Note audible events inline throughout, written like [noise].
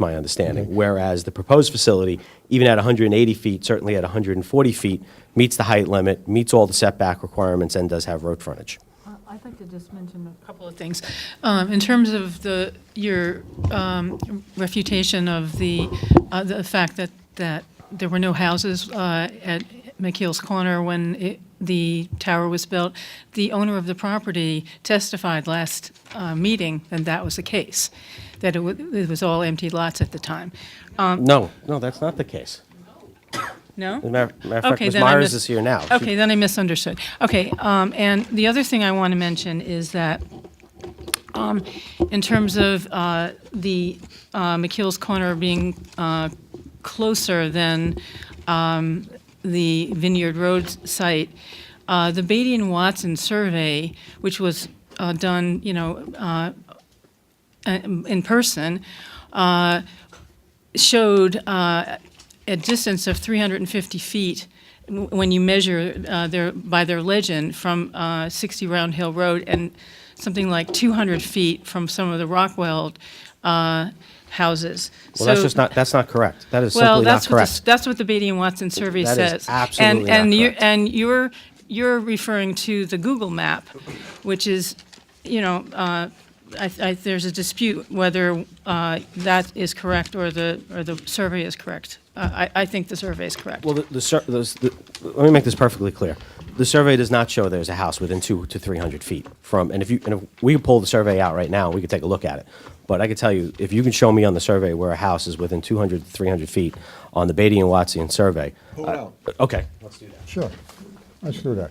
my Mm-hmm. understanding. Whereas the proposed facility, even at 180 feet, certainly at 140 feet, meets the height limit, meets all the setback requirements, and does have road frontage. Uh, I'd like to just mention a couple of things. Um, In terms of the, your um, refutation of the, uh, the fact that, that there were no houses uh, at McKeel's Corner when it- the tower was built, the owner of the property testified last uh, meeting that that was the case, that it wa- it was all empty lots at the time. Um, No, no, that's not the case. No? As a matter matter of fact, Okay, Ms. then I Myers mis- is here now. She- Okay, then I misunderstood. Okay, um, and the other thing I want to mention is that um, in terms of uh, the uh, McKeel's Corner being uh, closer than um, the Vineyard Road site, uh, the Beatty and Watson survey, which was uh, done, you know, uh, in in person, uh, showed uh, a distance of 350 feet w- when you measure uh, their, by their legend from uh, 60 Round Hill Road and something like 200 feet from some of the Rockwell uh, houses. Well, that's So- just not, that's not correct. That is well, simply not that's what the, correct. that's what the Beatty and Watson survey That is says. absolutely and not and you correct. and you're you're referring to the Google map, which is, you know, uh, I, I, there's a dispute whether uh, that is correct or the or the survey is correct. Uh, I, I think the survey is correct. Well, the, the, sur- those- the, let me make this perfectly clear. The survey does not show there's a house within two to 300 feet from, and if you, and if we could pull the survey out right now, we could take a look at it. But I could tell you, if you can show me on the survey where a house is within 200 to 300 feet on the Beatty and Watson survey. Pull it out. I- Okay. Let's do that. Sure, let's do that.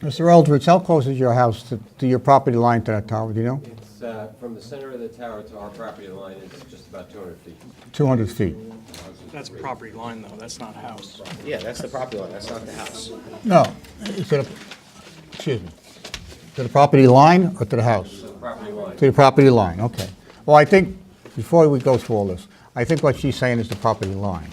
Mr. Eldridge, how close is your house to, to your property line to that tower, do you know? It's uh, from the center of the tower to our property line is just about 200 feet. 200 feet? That's property line, though, that's not house. Yeah, that's the property line, that's not the house. No, it's to the, excuse me, to the property line or to the house? Property line. To the property line, okay. Well, I think, before we go through all this, I think what she's saying is the property line.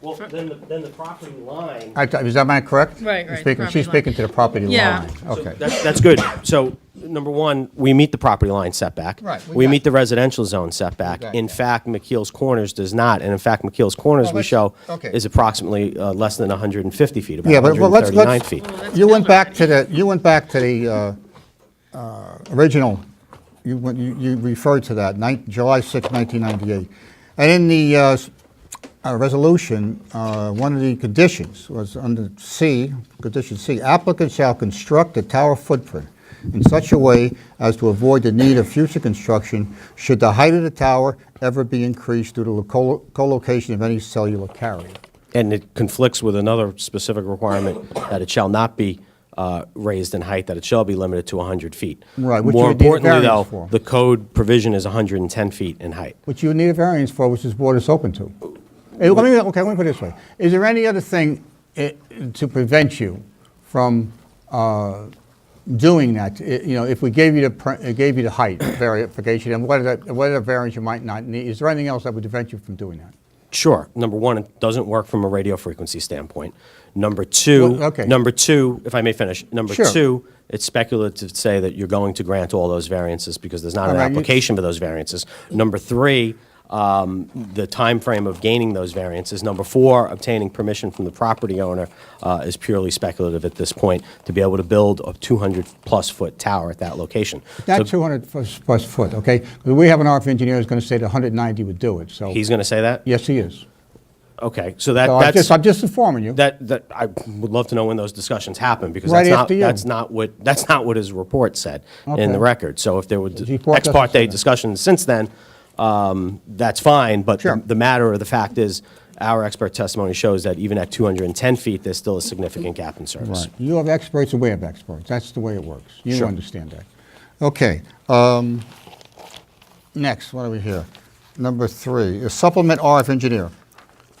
Well, then, the- then the property line. I- Is that my correct? Right, You're right, speaking- property She's line. speaking to the property line. Yeah. So Okay. That's, that's good. So, number one, we meet the property line setback. Right, we We got meet the that. residential zone setback. We got In that. fact, McKeel's Corners does not, and in fact, McKeel's Corners, Well, we let's- show, okay. is approximately uh, less than 150 feet, about Yeah, but well, let's, 139 let's, feet. you went back to the, you went back to the uh, uh, original, you went- you you referred to that, nine- July 6, 1998. And in the uh, s- uh, resolution, uh, one of the conditions was under C, condition C, applicant shall construct a tower footprint in such a way as to avoid the need of future construction should the height of the tower ever be increased due to the co- co-location of any cellular carrier. And it conflicts with another specific requirement that it shall not be uh, raised in height, that it shall be limited to 100 feet. Right, which you More would need a importantly, though, variance for. the code provision is 110 feet in height. which you need a variance for, which this board is open to. Eh, let me- okay, let me put it this way. Is there any other thing eh, to prevent you from uh, doing that? Eh, You know, if we gave you the, per- eh, gave you the height [coughs] verification, and what are the, what are the variance you might not need? Is there anything else that would prevent you from doing that? Sure. Number one, it doesn't work from a radio frequency standpoint. Number two, Well, okay. number two, if I may finish, number Sure. two, it's speculative to say that you're going to grant all those variances because there's not All an right, you- application for those variances. Number three, um, the frame of gaining those variances. Number four, obtaining permission from the property owner uh, is purely speculative at this point to be able to build a 200-plus foot tower at that location. Not So 200 plus plus foot, okay? 'Cause we have an RF engineer who's going to say that 190 would do it, so. He's going to say that? Yes, he is. Okay, so that, So I'm that's... just, I'm just informing you. That, that, I would love to know when those discussions happen, because Right that's not, after you. that's not what, that's not what his report said in Okay. the record. So if there were His report ex doesn't say parte that. discussions since then, um, that's fine, but Sure. the- the matter or the fact is, our expert testimony shows that even at 210 feet, there's still a significant gap in service. Right. You have experts and we have experts. That's the way it works. You Sure. understand that. Okay. um, Next, what are we here? Number three, is supplement RF engineer.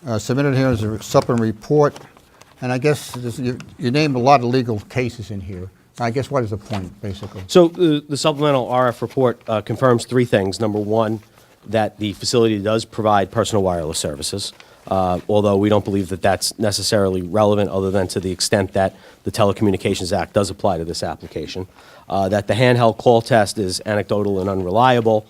Uh, Submitted here is a supplement report, and I guess this- you you named a lot of legal cases in here. I guess what is the point, basically? Mm-hmm. So uh, the the supplemental RF report uh, confirms three things. Number one, that the facility does provide personal wireless services. Uh, uh, although we don't believe that that's necessarily relevant, other than to the extent that the Telecommunications Act does apply to this application. Uh, That the handheld call test is anecdotal and unreliable,